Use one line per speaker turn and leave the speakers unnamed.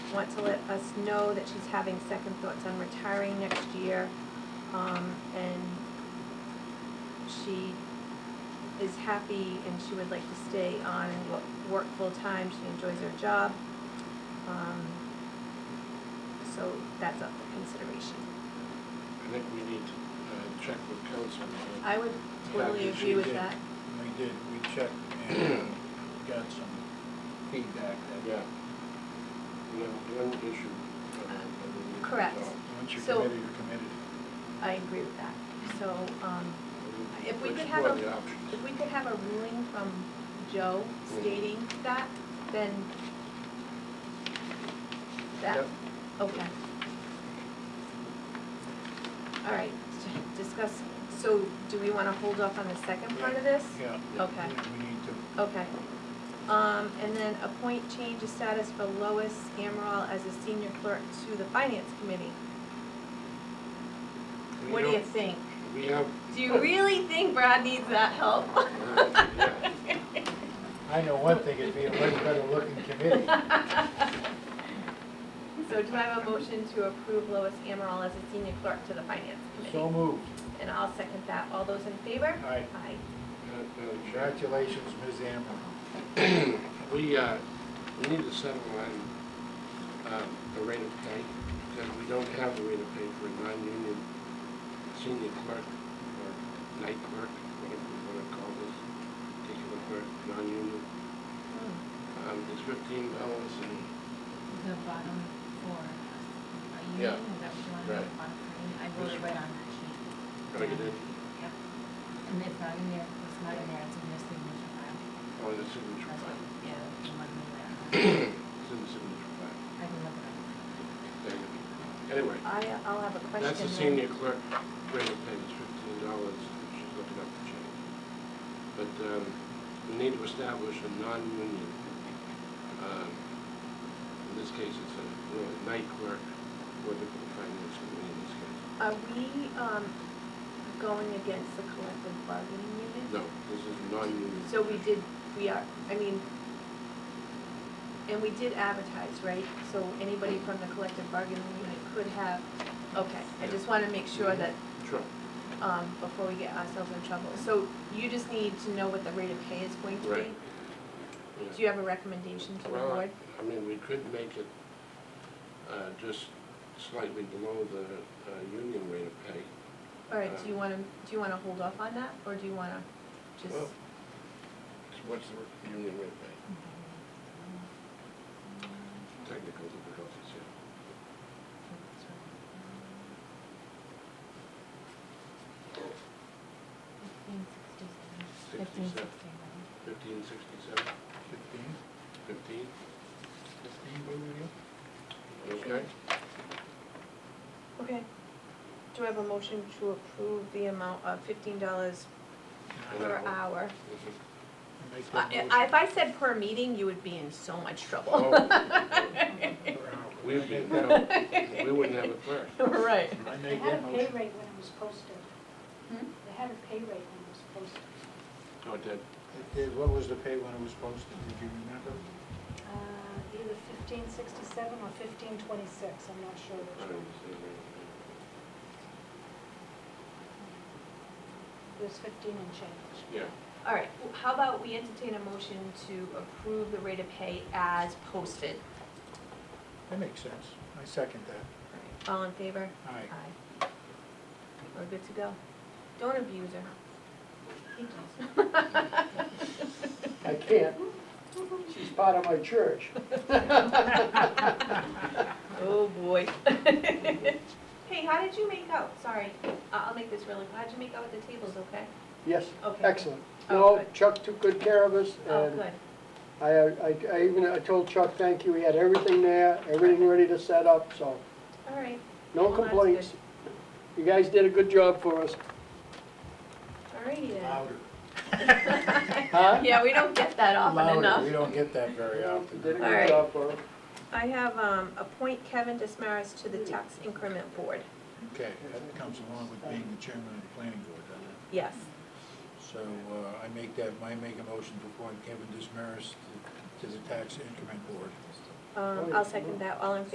want to let us know that she's having second thoughts on retiring next year. Um, and she is happy and she would like to stay on, and wo- work full-time, she enjoys her job. Um, So that's up for consideration.
I think we need to uh, check with council. uh,
I would totally
Yeah, she
agree with
did.
that.
We did, we checked and got some feedback that,
Yeah. We have one issue. uh, that we need to
Correct.
resolve,
once you're
So-
committed, you're committed.
I agree with that. So, um,
and
If we could
explore
have a-
the options.
if we could have a ruling from Joe stating that, then that,
Yep.
okay. All right, discuss, so do we want to hold off on the second part of this?
Yeah.
Okay.
We need to,
Okay. Um, and then appoint change of status for Lois Amaral as a senior clerk to the finance committee.
We
What do you
don't-
think?
We have.
Do you really think Brad needs that help?
Yeah, yeah.
I know one thing, it'd be a much better looking committee.
So do I have a motion to approve Lois Amaral as a senior clerk to the finance
So
committee?
moved.
And I'll second that. All those in favor? Aye.
Aye.
Uh, Madam Chair,
Congratulations, Ms. Amram.
We, uh, we need to settle on uh, the rate of pay, because we don't have the rate of pay for a non-union senior clerk or night clerk, whatever you want to call this, particular clerk, non-union.
Hmm.
Um, It's fifteen dollars and,
Oh, The bottom four. Are you,
Yeah.
is that what you want to
Right.
know, bottom three? I wrote it right on that sheet.
gotta get in
Yep. And it's not in there, it's not in there, it's in your signature file.
on the signature
That's what,
file.
yeah, that's the one we left.
It's in the signature file.
I can look it up.
There you go. Anyway,
I, I'll have a question.
that's the
then.
senior clerk rate of pay, it's fifteen dollars, she's looking up the change. But um, we need to establish a non-union, um, in this case, it's a, you know, night clerk, working for the finance committee in this case.
Are we, um, going against the collective bargaining unit?
No, this is non-union.
So we did, we are, I mean, and we did advertise, right? So anybody from the collective bargaining unit could have, okay, I just wanna make sure that,
Sure.
um, before we get ourselves in trouble. So you just need to know what the rate of pay is going to be?
Right. Yeah.
Do you have a recommendation to the
Well,
board?
I mean, we could make it uh, just slightly below the uh, union rate of pay.
All
uh,
right, do you wanna, do you wanna hold off on that, or do you wanna just,
Well, So What's the union rate of pay? Technical difficulties here.
Fifteen sixty-seven. Fifteen
Sixty-seven,
sixty-seven.
fifteen sixty-seven,
Fifteen,
fifteen,
fifteen, what were you?
okay?
okay. Do I have a motion to approve the amount of fifteen dollars per
An hour.
hour?
Mhm.
Make that
I-
motion.
I- If I said per meeting, you would be in so much trouble.
Oh,
Per hour.
We'd be, no, we wouldn't have a clerk.
Right.
I
They
make
had
that
a pay
motion.
rate when it was posted.
Hmm?
They had a pay rate when it was posted.
Oh, it did.
It did- What was the pay when it was posted, did you remember?
Uh, Either fifteen sixty-seven or fifteen twenty-six, I'm not sure
I
which
don't
one.
understand
It was fifteen and change.
that. Yeah,
All right, w- how about we entertain a motion to approve the rate of pay as posted?
That makes sense, I second that.
All in favor?
Aye.
Aye. We're good to go. Don't abuse her.
He does.
I can't. She's part of my church.
Oh, boy. Hey, how did you make out? Sorry, I- I'll make this really, how'd you make out with the tables, okay?
Yes,
Okay.
excellent.
Oh,
No,
good.
Chuck took good care of us,
Oh,
and
good.
I, I I even, I told Chuck, thank you, he had everything there, everything ready to set up, so,
All right,
no
Well, that's
complaints. You guys did a good job for us.
all righty then.
Louder.
Huh?
Yeah, we don't get that often
Louder,
enough.
we don't get that very
You
often.
Did a
All right.
good job for us.
I have, um, appoint Kevin Dismaris to the tax increment board.
Okay, that comes along with being the chairman of the planning board, doesn't it?
Yes.
So uh, I make that, I make a motion to appoint Kevin Dismaris to- to the Tax Increment Board.
Um, I'll second that, all in favor?